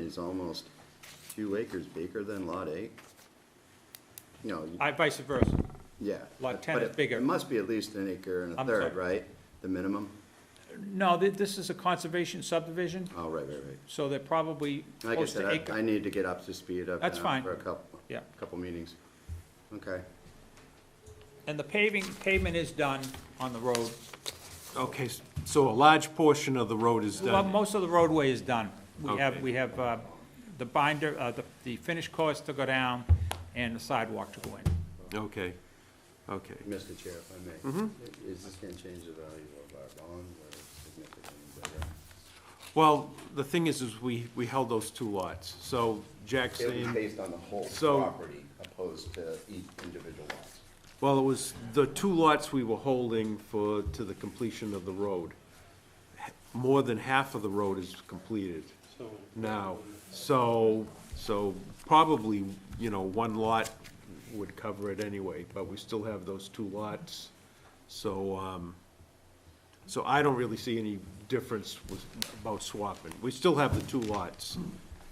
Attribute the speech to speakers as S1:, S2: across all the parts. S1: is almost two acres bigger than lot eight? No, you-
S2: I, vice versa.
S1: yeah.
S2: lot 10
S1: but
S2: is
S1: it-
S2: bigger.
S1: It must be at least an acre and a
S2: I'm
S1: third,
S2: sorry.
S1: right? The minimum?
S2: No, thi- this is a conservation subdivision,
S1: Oh, right, right, right.
S2: so they're probably
S1: Like I
S2: close to
S1: said, I, I
S2: acre.
S1: need to get up to speed. I've
S2: That's
S1: been out
S2: fine.
S1: For a couple,
S2: Yeah.
S1: couple meetings. Okay.
S2: And the paving, pavement is done on the road.
S3: Okay, s- so a large portion of the road is
S2: Well,
S3: done.
S2: most of the roadway is done. We have,
S3: Okay.
S2: we have uh, the binder, uh, the- the finished course to go down and the sidewalk to go in.
S3: Okay, okay.
S1: Mr. Chair, if I may.
S3: Mm-hmm.
S1: Is this gonna change the value of our bond or significantly better?
S3: Well, the thing is, is we, we held those two lots, so Jack's
S1: It was
S3: saying,
S1: based on the whole
S3: So-
S1: property opposed to each individual lots.
S3: well, it was the two lots we were holding for, to the completion of the road. More than half of the road is completed now, so, so probably, you know, one lot would cover it anyway, but we still have those two lots, so, um, So I don't really see any difference with, about swapping. We still have the two lots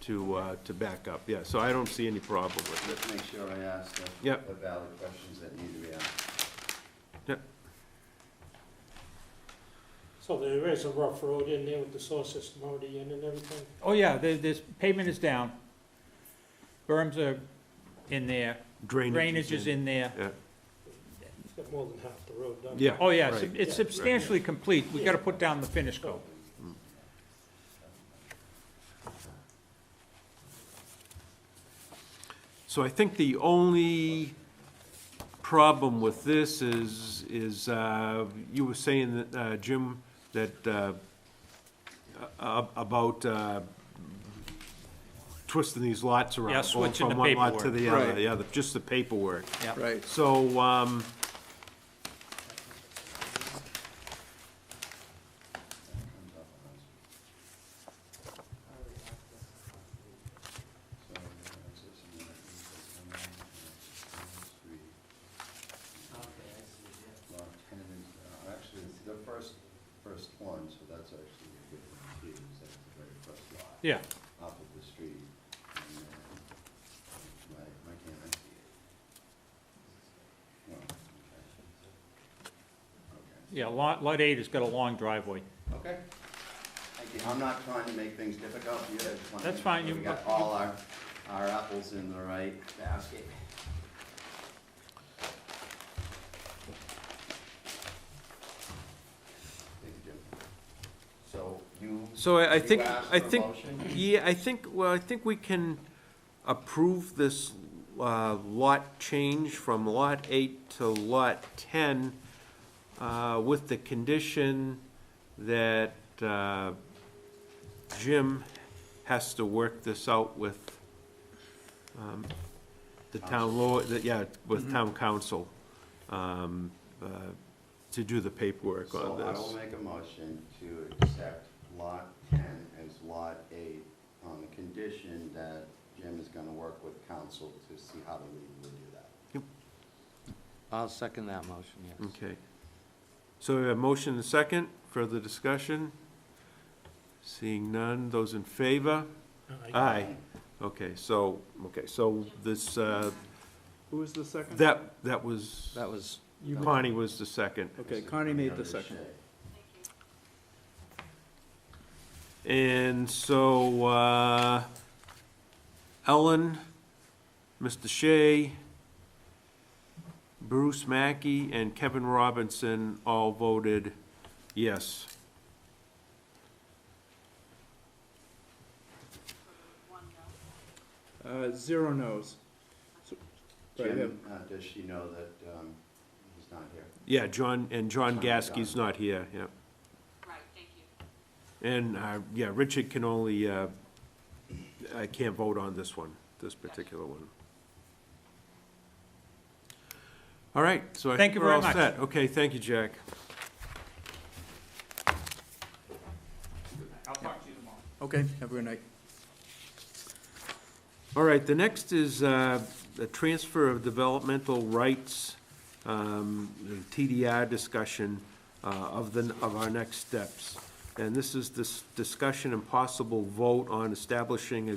S3: to, uh, to back up, yeah, so I don't see any problem with it.
S1: Let's make sure I ask the
S3: Yep.
S1: the valid questions that need to be asked.
S3: Yeah,
S4: So there is a rough road in there with the source system already in and everything?
S2: Oh, yeah, there- there's, pavement is down. Berms are in there, drainage is in there.
S3: Yeah,
S4: It's got more than half the road done.
S3: yeah.
S2: Oh, yeah, it's-
S3: right.
S2: it's substantially complete. We gotta put down the finish coat.
S3: So I think the only problem with this is, is, uh, you were saying that, uh, Jim, that, uh, a- a- about, uh, twisting these lots around.
S2: Yeah,
S3: going
S2: switching the
S3: From one lot to
S2: paperwork.
S3: the other,
S5: Right.
S3: yeah, the- just the paperwork.
S2: Yeah.
S5: Right.
S3: So, um,
S1: Lot 10 is, uh, Actually, it's the first, first one, so that's actually a good one too, is that's the very first lot
S2: Yeah,
S1: off of the street. and, uh, Why, why can't I see it? Well, okay.
S2: yeah, lot, lot eight has got a long driveway.
S1: Okay. Okay. Thank you. I'm not trying to make things difficult for you. I just want to.
S2: That's fine, you-
S1: We got all our, our apples in the right basket. Thank you, Jim. So you.
S3: So I, I
S1: you
S3: think,
S1: asked
S3: I
S1: for a
S3: think,
S1: motion?
S3: yeah, I think, well, I think we can approve this, uh, lot change from lot eight to lot ten, uh, with the condition that, uh, Jim has to work this out with, um, the town law, that, yeah,
S1: Mm-hmm.
S3: with town council, um, uh, to do the paperwork on
S1: So I will
S3: this.
S1: make a motion to accept lot ten as lot eight on the condition that Jim is gonna work with council to see how to legally do that.
S5: I'll second that motion, yes.
S3: Okay. So we have motion and second, further discussion? Seeing none, those in favor? Aye. Okay, so, okay, so this, uh,
S6: Who was the second?
S3: that, that was,
S5: That was,
S3: Connie was the second.
S6: Okay, Connie made the second.
S3: And so, uh, Ellen, Mr. Shea, Bruce Mackey, and Kevin Robinson all voted yes.
S6: Uh, zero no's. So- but I have-
S1: Jim, uh, does she know that, um, he's not here?
S3: Yeah, John, and John
S1: John
S3: Gasky's
S1: Don.
S3: not here, yeah.
S7: Right, thank you.
S3: And, uh, yeah, Richard can only, uh, I can't vote on this one, this particular one. All right, so I
S2: Thank you
S3: think we're all
S2: very much.
S3: set. Okay, thank you, Jack.
S2: I'll talk to you tomorrow.
S6: Okay, have a good night.
S3: All right, the next is uh, the transfer of developmental rights, um, the TDR discussion uh, of the, of our next steps. And this is this discussion and possible vote on establishing a